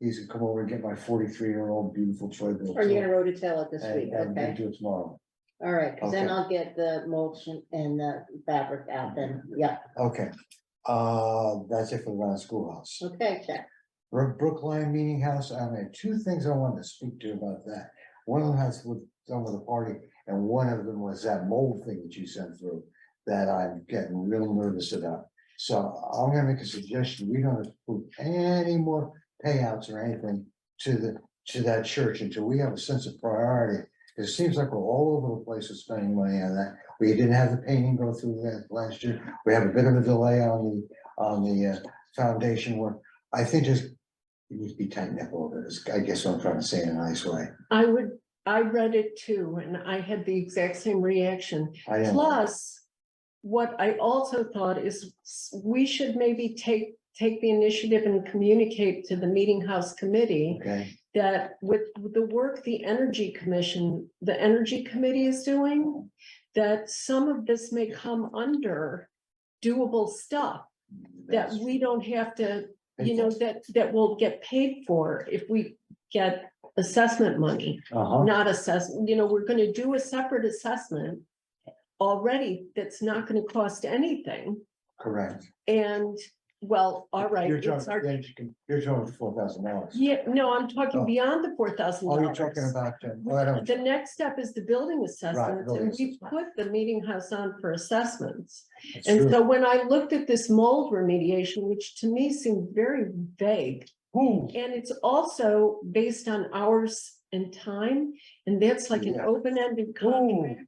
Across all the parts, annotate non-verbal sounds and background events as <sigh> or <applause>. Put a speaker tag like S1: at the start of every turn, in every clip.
S1: he's gonna come over and get my forty-three year old beautiful Troy built.
S2: Or you're gonna rototill it this
S1: And-
S2: week,
S1: and
S2: okay?
S1: Do it tomorrow.
S2: All right, cause then
S1: Okay.
S2: I'll get the mulch and- and the fabric out then, yeah,
S1: Okay, uh, that's it for the last schoolhouse.
S2: okay, check.
S1: Bro- Brookline Meeting House, I had two things I wanted to speak to you about that. One of them has with, done with the party, and one of them was that mold thing that you sent through. That I'm getting real nervous about. So I'm gonna make a suggestion, we don't approve any more payouts or anything to the, to that church until we have a sense of priority. 'Cause It seems like we're all over the place with spending money on that. We didn't have the painting go through that last year. We have a bit of a delay on the, on the uh, foundation work. I think just it needs to be tightened up a little bit, is I guess what I'm trying to say in a nice way.
S3: I would, I read it too, and I had the exact same reaction.
S1: I am-
S3: Plus, what I also thought is s- we should maybe take, take the initiative and communicate to the Meeting House Committee
S1: Okay,
S3: that with the work the Energy Commission, the Energy Committee is doing, that some of this may come under doable stuff, that
S1: that's-
S3: we don't have to you know, that, that will get paid for if we get assessment money,
S1: Uh-huh,
S3: not assess, you know, we're gonna do a separate assessment already that's not gonna cost anything,
S1: correct.
S3: and, well, all right,
S1: You're
S3: it's our,
S1: talking, then you can- you're talking four thousand dollars.
S3: yeah, no, I'm
S1: Oh.
S3: talking beyond the four thousand
S1: Oh, you're talking
S3: dollars.
S1: about, uh, well, I don't,
S3: The next step is the building assessments,
S1: building
S3: and we put the meeting house on for assessments.
S1: it's
S3: And
S1: true.
S3: so when I looked at this mold remediation, which to me seemed very vague,
S1: Ooh,
S3: And it's also based on hours and time, and that's like an
S1: Yeah.
S3: open-ended contract.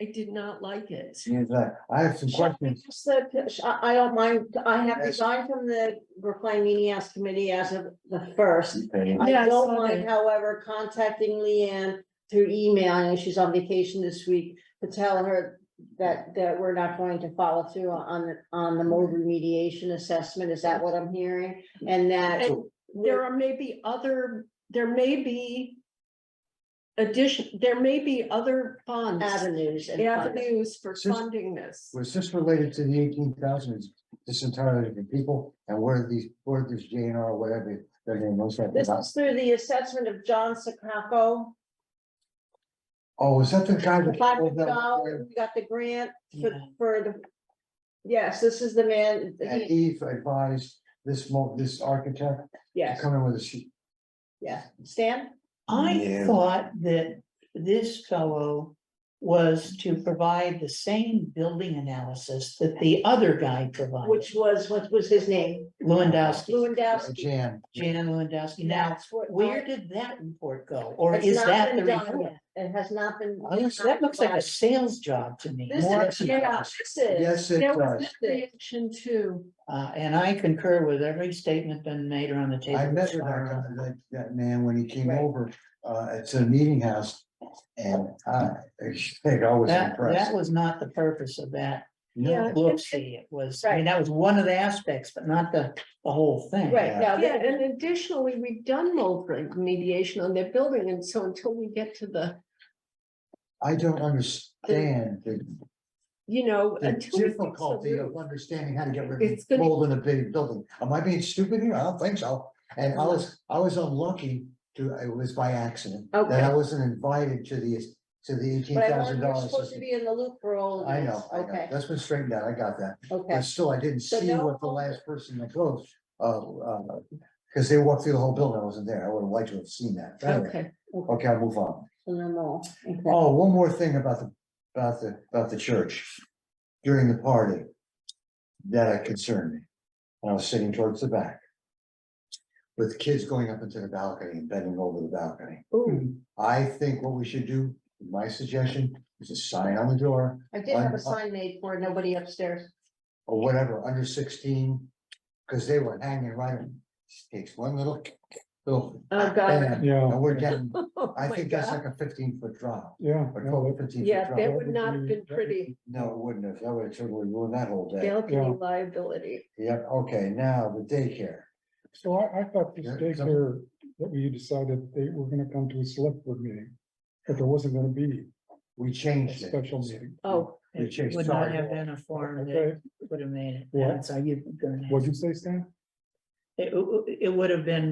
S3: I did not like it.
S1: geez, uh, I have some questions.
S2: Just the- sh- I, I don't mind, I have
S1: Yes.
S2: resigned from the Brookline Meeting House Committee as of the first.
S1: Okay,
S2: I
S3: Yeah, I
S2: don't
S3: saw
S2: mind,
S3: that.
S2: however, contacting Leanne through email, I know she's on vacation this week, to tell her that, that we're not going to follow through on, the on the mold remediation assessment, is that what I'm hearing? And that.
S3: And there are maybe other, there may be addition, there may be other funds,
S2: Avenues and. funding.
S3: avenues for
S1: Sis-
S3: funding this.
S1: Was this related to the eighteen thousand, is this entirely different people, and where are these, where are these J and R, whatever, their name was.
S2: This is through the assessment of John Sacacco.
S1: Oh, is that the guy?
S2: The
S1: that-
S2: five
S1: oh,
S2: hundred dollars,
S1: that-
S2: we got the grant for,
S3: Yeah.
S2: for the. Yes, this is the man,
S1: And
S2: he-
S1: Eve advised this mo, this architect to
S2: yes,
S1: come in with a sheet.
S2: yeah, Stan?
S4: I
S1: Yeah.
S4: thought that this fellow was to provide the same building analysis that the other guy provided,
S2: Which was, what was his name?
S4: Lewandowski,
S2: Lewandowski.
S1: Jan.
S4: Jan Lewandowski. Now,
S2: That's what-
S4: where did that report go? Or
S2: It's
S4: is
S2: not
S4: that
S2: been
S4: the
S2: done
S4: report?
S2: yet. It has not been.
S4: I was- That looks like a sales job to me. more
S2: This is,
S4: than-
S2: yeah, this is,
S1: Yes, it uh,
S3: That was
S1: does.
S3: that reaction too.
S4: Uh, and I concur with every statement been made around the table.
S1: I met with that,
S4: Sorry.
S1: that, that man when he came
S2: Right.
S1: over, uh, at the meeting house. And I, I think I was <laughs>
S4: That, that
S1: impressed.
S4: was not the purpose of that.
S1: No,
S3: Yeah.
S4: Look, see, it was, I mean,
S2: Right.
S4: that was one of the aspects, but not the, the whole thing.
S2: right, now,
S3: Yeah,
S2: that-
S3: and additionally, we've done mold remediation on that building, and so until we get to the,
S1: I don't understand the,
S3: you know.
S1: the
S3: until we fix the
S1: difficulty
S3: roof.
S1: of understanding how to get rid
S3: It's
S1: of
S3: gonna-
S1: mold in a big building. Am I being stupid here? I don't think so. And I was, I was unlucky to, it was by accident. That I
S2: Okay.
S1: wasn't invited to the, to the eighteen
S2: but I learned
S1: thousand
S2: we're
S1: dollars.
S2: supposed to be in the loop for all of
S1: I
S2: this.
S1: know, I know.
S2: Okay,
S1: That's been straightened out. I got that.
S2: okay,
S1: But still, I didn't
S2: So
S1: see
S2: no-
S1: what the last person that goes, uh, uh, because they walked through the whole building, I wasn't there, I would have liked to have seen that. But anyway,
S3: Okay,
S1: Okay, I'll move on.
S2: so no more, okay.
S1: Oh, one more thing about the, about the, about the church during the party that concerned me. And I was sitting towards the back with kids going up into the balcony and bending over the balcony. Hmm.
S3: ooh,
S1: I think what we should do, my suggestion, is a sign on the door
S2: I did have a sign made for nobody upstairs.
S1: or whatever, under sixteen, because they were hanging right, on- takes one little, little.
S3: oh, God.
S1: band,
S5: Yeah,
S1: And uh, we're getting,
S3: <laughs> Oh
S1: I
S3: my
S1: think that's
S3: God.
S1: like a fifteen foot drop,
S5: yeah.
S1: or
S5: yeah.
S1: twelve or fifteen. foot
S3: Yeah,
S1: drop.
S3: that
S5: that
S3: would
S5: would
S3: not have
S5: be-
S3: been
S5: that would
S3: pretty.
S1: No, it wouldn't have, that would have totally ruined that whole day.
S3: Balcony liability.
S1: Yep, okay, now the daycare,
S5: So I, I thought this
S1: Yeah, some-
S5: daycare, that we decided they were gonna come to a select board meeting, but there wasn't gonna be
S1: we
S5: a
S1: changed it.
S5: special meeting.
S3: Oh,
S1: They
S4: It
S1: changed
S4: would not
S1: sorry.
S4: have been a form
S5: Okay,
S4: that would have made it,
S5: Yeah.
S4: that's how you.
S5: what'd you say, Stan?
S4: It, it would have been